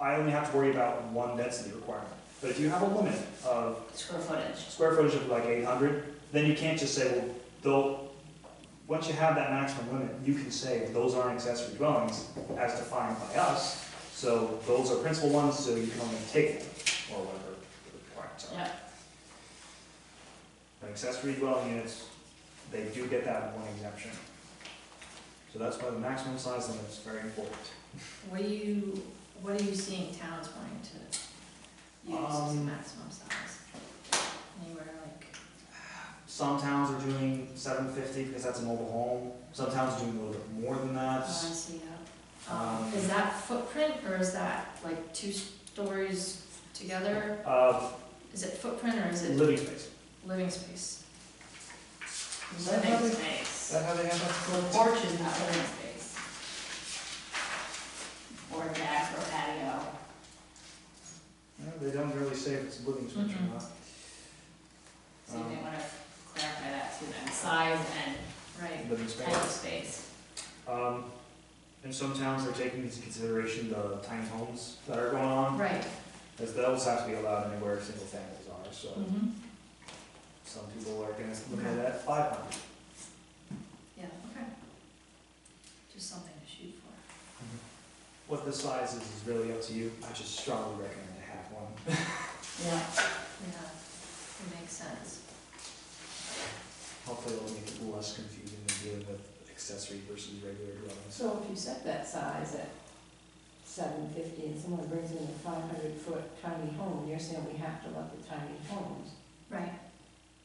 I only have to worry about one density requirement. But if you have a limit of square footage. square footage of like eight hundred, then you can't just say, well, they'll, once you have that maximum limit, you can say, those aren't accessory dwellings as defined by us, so those are principal ones, so you can only take them, or whatever the requirements are. Yeah. And Accessory dwelling units, they do get that one exemption. So that's why the maximum size limit is very important. What do you, what are you seeing towns wanting to use as a Um, maximum size? Anywhere like, Some towns are doing seven fifty because that's a mobile home, some towns are doing a little bit more than oh, that. I see that. Um, um, is that footprint or is that like two stories together? Uh, Is it footprint or is it Living space. living space? Is that how Living they- space. that how they have The that? porch is not living space. Or deck or patio. No, they don't really say if it's living space or Mhm. not. So you may want to clarify that too then, size and Right, Living type of space. space. Um, in some towns, they're taking into consideration the tiny homes that are going on, right. as those have to be allowed anywhere single families are, so Mm-hmm. some people are gonna look at that five hundred. Yeah, okay. Just something to shoot for. What the size is, is really up to you, I just strongly recommend to have one. Yeah. Yeah, it makes sense. Hopefully it'll make it less confusing than dealing with accessory versus regular dwellings. So if you set that size at seven fifty and someone brings in a five hundred foot tiny home, you're saying we have to let the tiny homes. Right.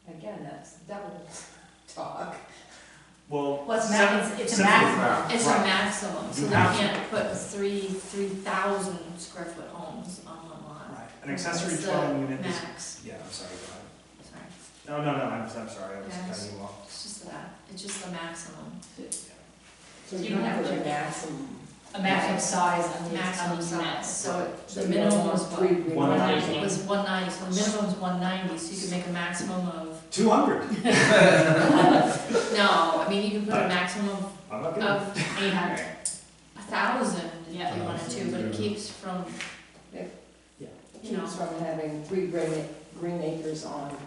Again, that's double talk. Well. Well, it's seven- max, it's a seven- maximum. It's a Right. maximum, so You they have to. can't put three, three thousand square foot homes on one lot. Right, an accessory It's the dwelling unit is, Max, yeah, I'm sorry, go ahead. sorry, No, no, no, I'm, I'm sorry, I was Yeah, it's- cutting you off. it's just that, it's just the maximum. So You you don't have have a to- maximum. A maximum size on the, on Maximum the size, units. so it- So the you don't minimum want was three what? green One ones. ninety. It was one ninety, so the minimum is one ninety, so you can make a maximum of, Two hundred. no, I mean, you can put a maximum of I'm not gonna. of eight hundred. A thousand if Yeah. you wanted to, but it keeps from, you know. Keeps from having three green, green acres on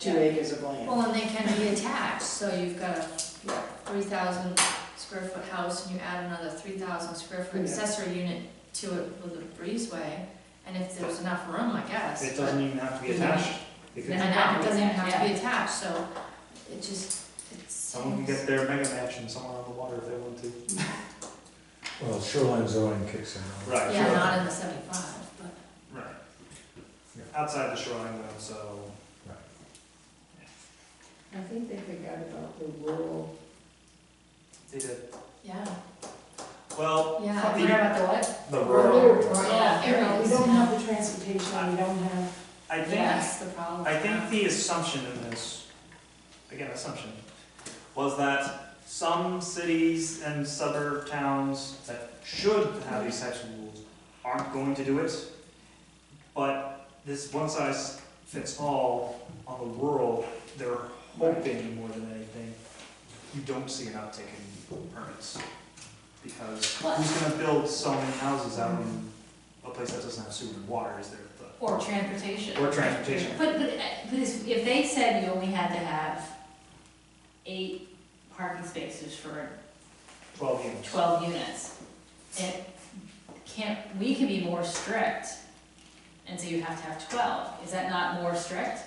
two Yeah. acres of land. well, and they can be attached, so you've got a Yeah. three thousand square foot house and you add another three thousand square foot Yeah. accessory unit to it with a breezeway, and if there's enough room, I guess. It doesn't even have to be Yeah. attached. It And could, Yeah. that doesn't even have to be attached, so it just, it's. someone can get their mega mansion somewhere on the water if they want to. Well, shoreline zoning kicks in. right? Right. Yeah, not in the seventy-five, but. Right. Yeah. Outside the shoreline though, so. I think they forgot about the rural, They did, Yeah, well, yeah, I Talking forgot about the what? the Rural rural, areas. Yeah. we areas. don't have the transportation, we don't have, I think, That's the problem. I think the assumption in this, again, assumption, was that some cities and suburb towns that should have these types of rules aren't going to do it. But this one size fits all on the rural, they're hoping more than anything, you don't see an uptick in permits. Because who's gonna build so many houses out in a place that doesn't have sewer and water, is there, the- Or transportation. or transportation? But, but, uh, but if if they said you only had to have eight parking spaces for Twelve units. twelve units, it can't, we can be more strict, and so you have to have twelve, is that not more strict?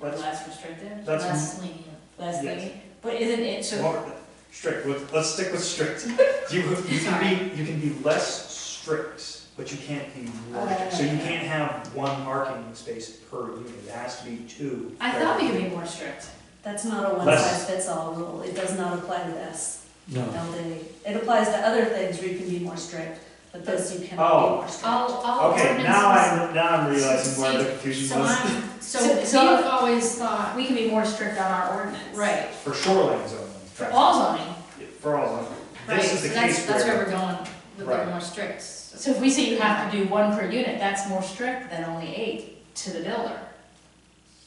Or That's- less restrictive, That's Less lenient. less yes. lenient, but isn't it, so, Well, strict, with- let's stick with strict. You, you can be, you can be less strict, but you can't be more strict. So you can't have one parking space per unit, it has to be two. I thought we could be more strict. That's not a one-size-fits-all rule, it does not apply to this, No, no, they, it applies to other things where you can be more strict, but this you cannot Oh. be more strict. All, all Okay, ordinances. now I'm, now I'm realizing where the See, confusion So was. I'm, so So- we've so- always thought, We can be more strict on our ordinance. right, For shoreline zoning. For all zoning, For all zoning. right, This is so the that's, case that's where where, we're going, with Right. the more strict. so if we say you have to do one per unit, that's more strict than only eight to the builder.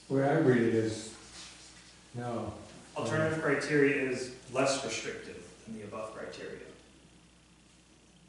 the way I read it is, no, alternative criteria is less restrictive than the above criteria.